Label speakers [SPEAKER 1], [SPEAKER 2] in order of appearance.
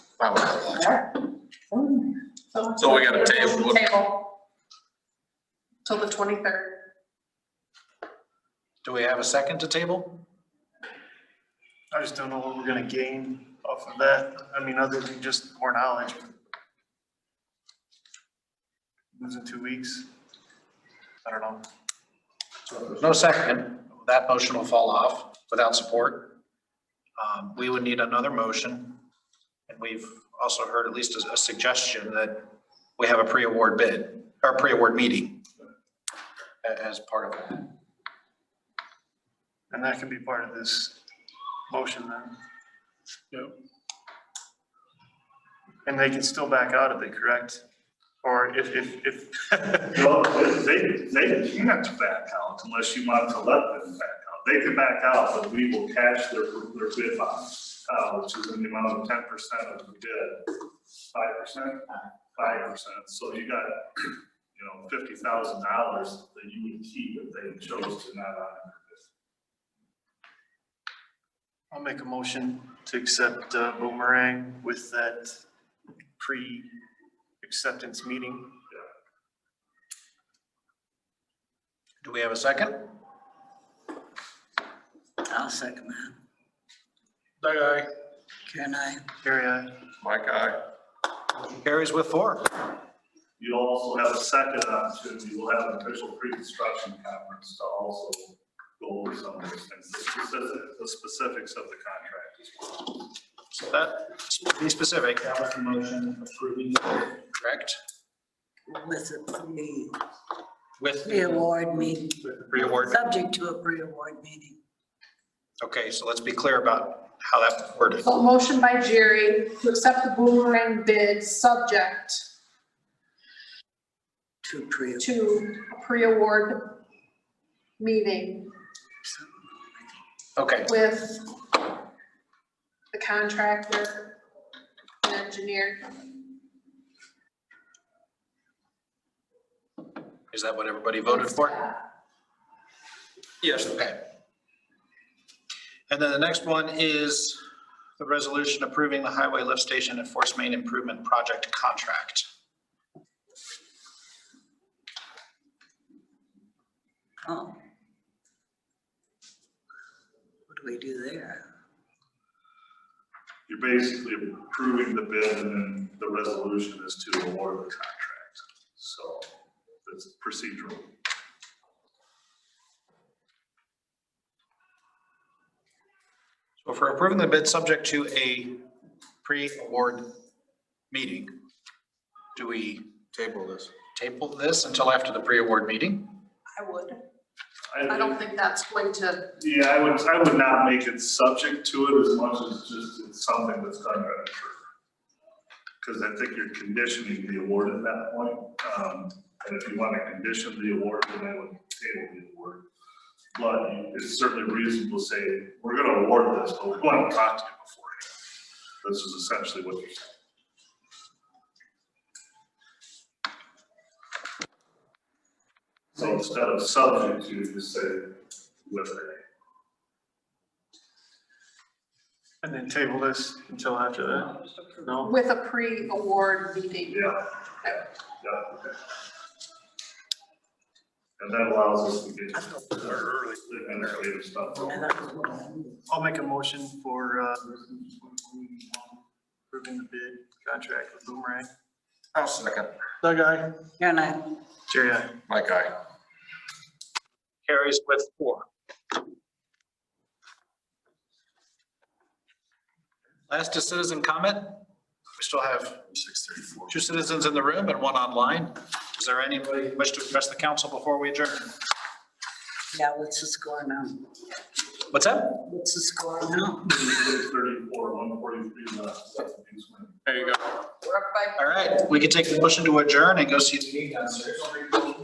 [SPEAKER 1] Wow.
[SPEAKER 2] So we gotta table it.
[SPEAKER 3] Table. Till the twenty-third.
[SPEAKER 1] Do we have a second to table?
[SPEAKER 4] I just don't know what we're gonna gain off of that. I mean, other than just more knowledge. Losing two weeks. I don't know.
[SPEAKER 1] So if there's No second, that motion will fall off without support. Um, we would need another motion. And we've also heard at least a- a suggestion that we have a pre-award bid, or pre-award meeting a- as part of that.
[SPEAKER 4] And that can be part of this motion then. Yep. And they can still back out of it, correct? Or if, if, if,
[SPEAKER 5] Well, they, they can't back out unless you want to let them back out. They can back out, but we will cash their, their bid bond, uh, which is in the amount of ten percent of the bid. Five percent, five percent, so you got, you know, fifty thousand dollars that you would keep if they chose to not honor
[SPEAKER 4] I'll make a motion to accept uh, Boomerang with that pre-acceptance meeting.
[SPEAKER 1] Do we have a second?
[SPEAKER 6] I'll second that.
[SPEAKER 2] Day aye.
[SPEAKER 6] Karen, I,
[SPEAKER 4] Carrie, aye.
[SPEAKER 2] Mike aye.
[SPEAKER 1] Motion Carries with four.
[SPEAKER 5] You'll also have a second opportunity, we'll have an official pre-construction conference to also go over some of those things, the specific- the specifics of the contract as well.
[SPEAKER 1] So that, be specific. That was the motion approving. Correct,
[SPEAKER 6] with a pre,
[SPEAKER 1] with
[SPEAKER 6] pre-award meeting,
[SPEAKER 1] pre-award.
[SPEAKER 6] subject to a pre-award meeting.
[SPEAKER 1] Okay, so let's be clear about how that's worded.
[SPEAKER 3] So motion by Jerry to accept the boomerang bid, subject
[SPEAKER 6] To pre,
[SPEAKER 3] to a pre-award meeting
[SPEAKER 1] Okay,
[SPEAKER 3] with the contractor and engineer.
[SPEAKER 1] is that what everybody voted for? Yes. Okay. And then the next one is the resolution approving the highway lift station at Force Main Improvement Project contract.
[SPEAKER 6] oh. What do we do there?
[SPEAKER 5] You're basically approving the bid and then the resolution is to award the contract, so it's procedural.
[SPEAKER 1] So if we're approving the bid subject to a pre-award meeting, do we
[SPEAKER 2] Table this.
[SPEAKER 1] table this until after the pre-award meeting?
[SPEAKER 3] I would. I don't think that's going to,
[SPEAKER 5] Yeah, I would, I would not make it subject to it as much as just it's something that's done right. Because I think you're conditioning the award at that point, um, and if you want to condition the award, then I would table the award. But it's certainly reasonable to say, we're gonna award this, but we want to talk to you beforehand. This is essentially what you're saying. So instead of subject, you just say with it.
[SPEAKER 4] And then table this until after that? No?
[SPEAKER 3] with a pre-award meeting.
[SPEAKER 5] Yeah, yeah, yeah, okay. And that allows us to get our early, and our later stuff.
[SPEAKER 6] And that was what I knew.
[SPEAKER 4] I'll make a motion for uh, approving the bid contract with Boomerang.
[SPEAKER 2] I'll second.
[SPEAKER 4] Doug, aye.
[SPEAKER 6] Karen, I,
[SPEAKER 4] Jerry, aye.
[SPEAKER 2] Mike aye.
[SPEAKER 1] Carries with four. Last is citizen comment. We still have
[SPEAKER 5] Six thirty-four.
[SPEAKER 1] two citizens in the room and one online. Is there anybody who wish to address the council before we adjourn?
[SPEAKER 6] yeah, what's the score now?
[SPEAKER 1] What's that?
[SPEAKER 6] What's the score now?
[SPEAKER 5] Thirty-four, one forty-three left.
[SPEAKER 2] There you go.
[SPEAKER 3] We're up by
[SPEAKER 1] All right, we can take the motion to adjourn and go see the meeting downstairs.